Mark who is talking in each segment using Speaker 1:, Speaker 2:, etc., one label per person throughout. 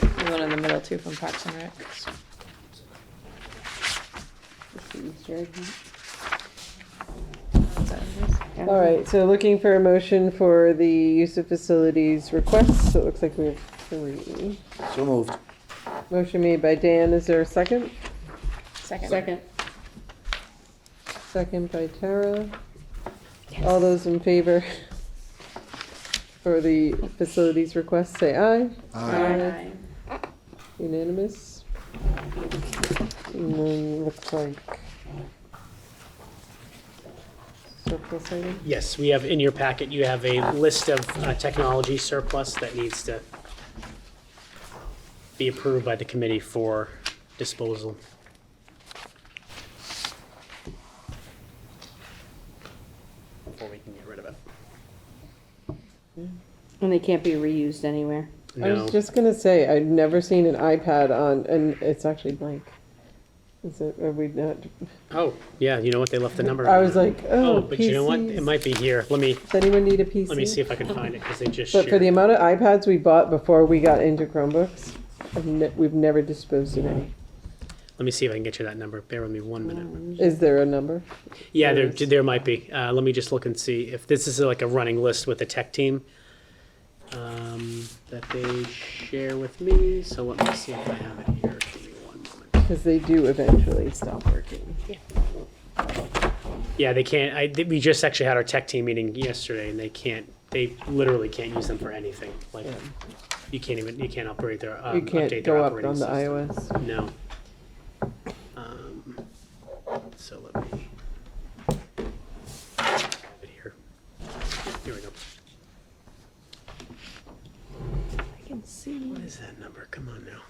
Speaker 1: there's one in the middle too from Parks and Rec. Is that what it is?
Speaker 2: All right, so looking for a motion for the use of facilities requests, so it looks like we have three.
Speaker 3: So moved.
Speaker 2: Motion made by Dan, is there a second?
Speaker 1: Second.
Speaker 4: Second.
Speaker 2: Second by Tara. All those in favor for the facilities request, say aye.
Speaker 4: Aye.
Speaker 2: Unanimous? And then looks like. Surplus item?
Speaker 5: Yes, we have, in your packet, you have a list of uh, technology surplus that needs to be approved by the committee for disposal. Before we can get rid of it.
Speaker 4: And they can't be reused anywhere.
Speaker 2: I
Speaker 5: No,
Speaker 2: was just gonna say, I've never seen an iPad on, and it's actually blank. Is it, are we not,
Speaker 5: oh, yeah, you know what, they left the number.
Speaker 2: I was like,
Speaker 5: Oh,
Speaker 2: oh,
Speaker 5: but you know what, it
Speaker 2: PCs.
Speaker 5: might be here, let me,
Speaker 2: Does anyone need a PC?
Speaker 5: let me see if I can find it, because they just
Speaker 2: But for the
Speaker 5: shared.
Speaker 2: amount of iPads we bought before we got into Chromebooks, I've ne- we've never disposed of any.
Speaker 5: Let me see if I can get you that number, bear with me one minute.
Speaker 2: Is there a number?
Speaker 5: Yeah, there, there might be. Uh, let me just look and see if this is like a running list with the tech team um, that they share with me. So let me see if I have it here. Give me one moment.
Speaker 2: Because they do eventually stop working.
Speaker 5: Yeah, they can't. I, th- we just actually had our tech team meeting yesterday, and they can't. They literally can't use them for anything. Like
Speaker 2: Yeah.
Speaker 5: you can't even you can't operate their um,
Speaker 2: You can't
Speaker 5: update their
Speaker 2: go up
Speaker 5: operating
Speaker 2: on the
Speaker 5: system.
Speaker 2: iOS.
Speaker 5: No. Um, so let me. have it Here Here we go.
Speaker 1: I can see.
Speaker 5: What is that number? Come on now.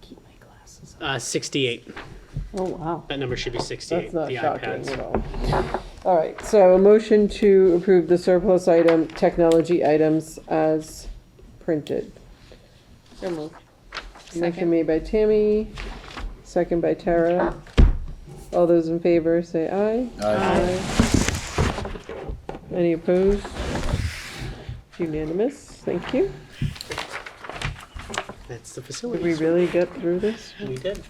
Speaker 1: Keep my glasses
Speaker 5: Uh, 68.
Speaker 4: Oh, wow.
Speaker 5: That number should be
Speaker 2: That's
Speaker 5: 68.
Speaker 2: not
Speaker 5: the
Speaker 2: shocking at
Speaker 5: iPads.
Speaker 2: all. All right, so a motion to approve the surplus item, technology items as printed.
Speaker 4: So moved.
Speaker 2: Motion
Speaker 1: Second.
Speaker 2: made by Tammy, second by Tara. All those in favor, say aye. Aye. Any opposed? Unanimous, thank you.
Speaker 5: That's the
Speaker 2: Did we
Speaker 5: facility.
Speaker 2: really get through this?
Speaker 5: We did.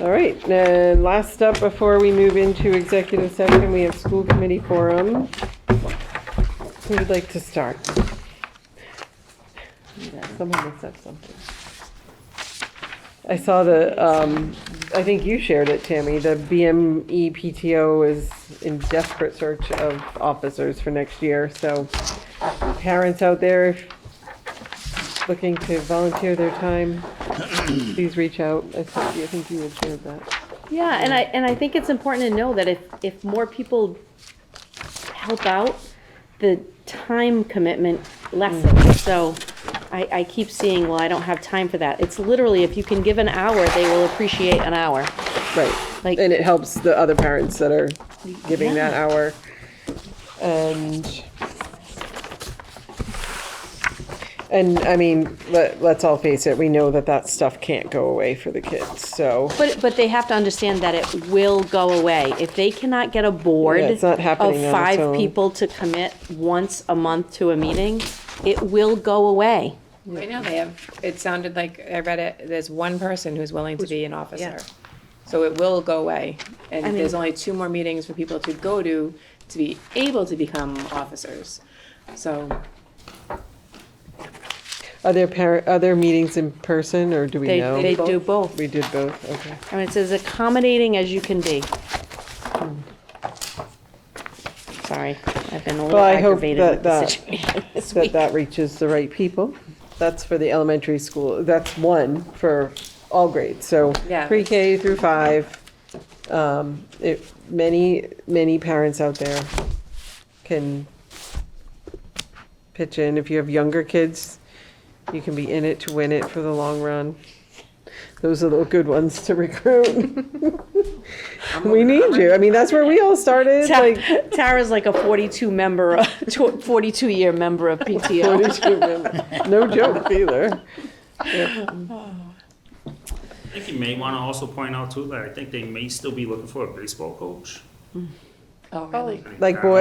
Speaker 2: All right, and last up, before we move into executive session, we have school committee forum. Who would like to start? Someone must have something. I saw the, um, I think you shared it, Tammy, the E BME PTO is in desperate search of officers for next year, so parents out there looking to volunteer their time, please reach out. I think, I think you had shared that.
Speaker 4: Yeah, and I, and I think it's important to know that if, if more people help out, the time commitment lessens. So I, I keep seeing, well, I don't have time for that. It's literally, if you can give an hour, they will appreciate an hour.
Speaker 2: Right.
Speaker 4: Like-
Speaker 2: and it helps the other parents that are giving that
Speaker 4: Yeah.
Speaker 2: hour. And and I mean, let, let's all face it. We know that that stuff can't go away for the kids. So
Speaker 4: But, but they have to understand that it will go away. If they cannot get a board
Speaker 2: Yeah, it's not happening on
Speaker 4: of
Speaker 2: its
Speaker 4: five
Speaker 2: own.
Speaker 4: people to commit once a month to a meeting, it will go away.
Speaker 1: Right now they have, it sounded like, I read it, there's one person who's willing to be an officer.
Speaker 4: yeah.
Speaker 1: So it will go away. And
Speaker 4: I mean-
Speaker 1: there's only two more meetings for people to go to, to be able to become officers. So
Speaker 2: are there parent are there meetings in person or do we
Speaker 4: They,
Speaker 2: know?
Speaker 4: they
Speaker 1: Both.
Speaker 4: do both.
Speaker 2: we did both. Okay.
Speaker 4: I mean, it's as accommodating as you can be. Sorry, I've been a little
Speaker 2: Well, I hope
Speaker 4: aggravated with
Speaker 2: that
Speaker 4: the
Speaker 2: that-
Speaker 4: situation this
Speaker 2: that
Speaker 4: week.
Speaker 2: that reaches the right people. That's for the elementary school. That's one for all grades. So
Speaker 1: Yeah.
Speaker 2: pre-K through five. Um, it, many many parents out there can pitch in. If you have younger kids, you can be in it to win it for the long run. Those are the good ones to recruit. we need you. I mean, that's where we all started.
Speaker 4: Ta-
Speaker 2: Like
Speaker 4: Tara's like a forty-two member, of- tw- forty-two year member of PTO.
Speaker 2: no joke either.
Speaker 6: I think you may want to also point out too that I think they may still be looking for a baseball coach.
Speaker 1: Oh, really?
Speaker 2: Like boy,